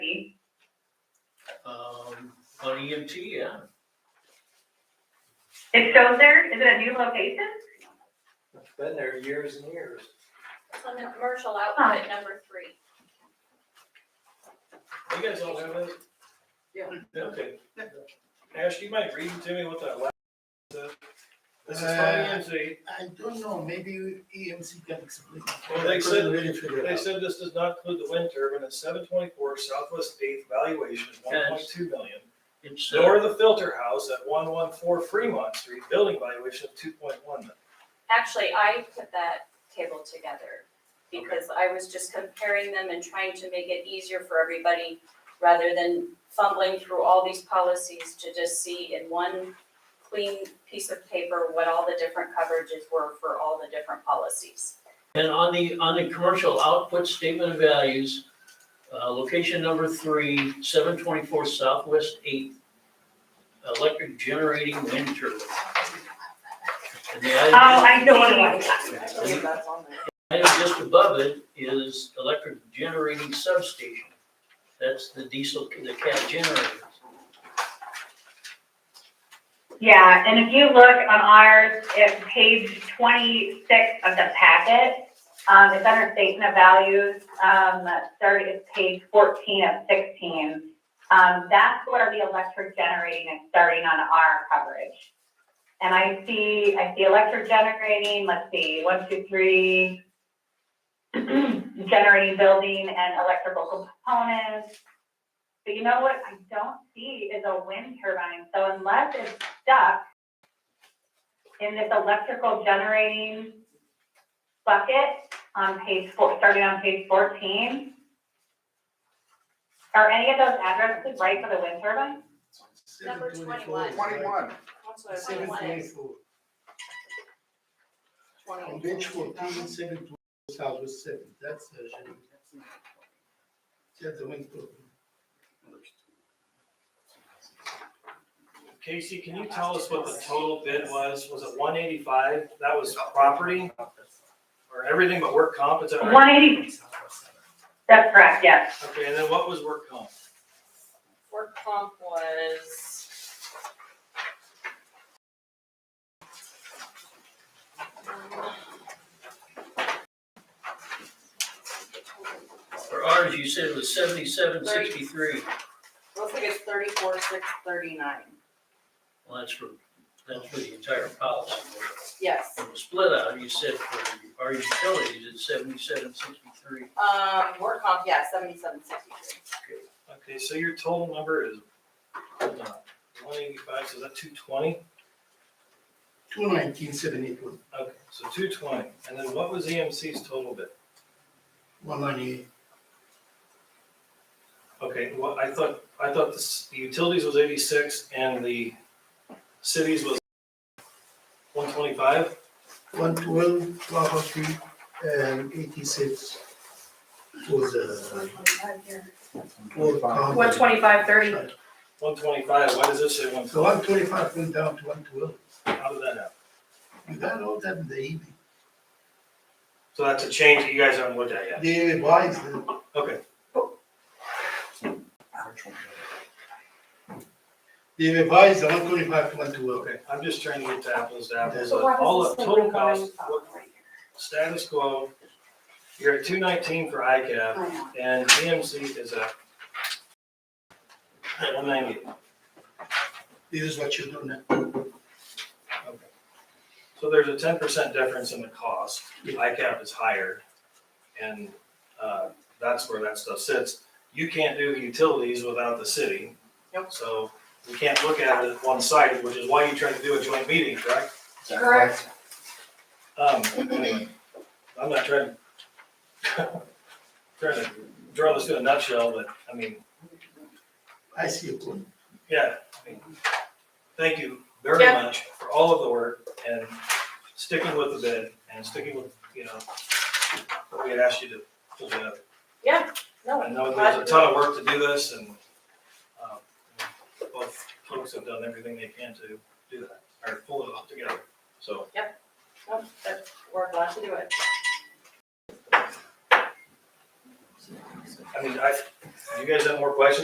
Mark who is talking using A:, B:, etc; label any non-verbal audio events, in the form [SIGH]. A: Um, EMT, E yeah.
B: It shows there, is it a new location?
C: Been there years and years.
D: It's on the commercial output number three.
A: You guys all have it?
E: Yeah.
A: Okay. Ash, you might read to me what that last, this is from E EMC.
F: Uh, I don't know, maybe EMC can explain.
A: Well, they said-
F: I'm ready to figure it
A: They
F: out.
A: said this does not include the wind turbine at seven twenty-four Southwest Eighth valuation of one point two million.
G: It's,
A: Nor
G: uh,
A: the filter house at one one four Fremont Street, building valuation of two point one million.
D: Actually, I put that table together because I was just comparing them and trying to make it easier for everybody rather than fumbling through all these policies to just see in one clean piece of paper what all the different coverages were for all the different policies.
G: and on the, on the commercial output statement of values, uh, location number three, seven twenty-four Southwest Eighth, electric generating wind turbine. And the
B: Oh,
G: item-
B: I know what it was.
E: I believe that's on there.
G: Item just above it is electric generating substation. That's the diesel, the cat generators.
B: Yeah, and if you look on ours, it's page twenty-six of the packet. Um, it's under statement of values, um, third is page fourteen of sixteen. Um, that's where the electric generating is starting on our coverage. And I see, I see electric generating, let's see, one, two, three. [CLEARS THROAT] Generating building and electrical components. But you know what I don't see is a wind turbine, so unless it's stuck in this electrical generating bucket on page four, starting on page fourteen. Are any of those addresses right for the wind turbine?
D: Number
F: 724.
D: 21.
E: That's what I
D: Seven.
E: said.
F: 724. On page fourteen, seven twenty-four, Southwest Seven, that's the, gen- that's the wind turbine.
A: Casey, can you tell us what the total bid was? Was it one eighty-five? That was property or everything but work comp? Is that right?
B: One eighty, that's correct, yes.
A: Okay, and then what was work comp?
D: Work comp was.
G: For ours, you said it was seventy-seven sixty-three.
E: Looks like it's thirty-four, six, thirty-nine.
G: Well, that's for, that's for the entire policy.
E: Yes,
G: On the split out, you said for our utilities, it's seventy-seven sixty-three.
E: um, work comp, yeah, seventy-seven, sixty-three.
A: Okay, so your total number is one eighty-five, so is that two twenty?
F: Two nineteen, seven eight one,
A: Okay, so two twenty, and then what was EMC's total bid?
F: one ninety-eight.
A: Okay, well, I thought, I thought the s- the utilities was eighty-six and the cities was one twenty-five?
F: One twelve, property, and eighty-six uh, for the, for company.
H: One twenty-five thirty.
A: One twenty-five, why does this say one,
F: So one twenty-five went down to one twelve,
A: how did that happen?
F: you got all that in the evening,
A: So that's a change that you guys haven't looked at yet?
F: they revised it.
A: Okay,
F: They revised the one twenty-five to one twelve.
A: okay, I'm just trying to get to apples to apples,
F: So
A: but all the total cost, what- status quo, you're at two nineteen for ICAP, And EMC is a one ninety.
F: This is what you do now.
A: So there's a ten percent difference in the cost. ICAP is higher. And uh, that's where that stuff sits. You can't do utilities without the city.
E: Yep.
A: So we can't look at it one sided, which is why you tried to do a joint meeting, correct?
H: Correct.
A: Um, anyway, I'm not trying to [LAUGHS] trying to draw this to a nutshell, but I mean,
F: I see a point.
A: Yeah, I mean, thank you very
H: Yeah.
A: much for all of the work and sticking with the bid and sticking with, you know, what we had asked you to, to do.
D: No,
A: I know there's a ton of work to do this and, um, both folks have done everything they can to do that, or pull it all together, so.
D: no, that's- we're glad to do it.
A: I mean, I, you guys have more questions?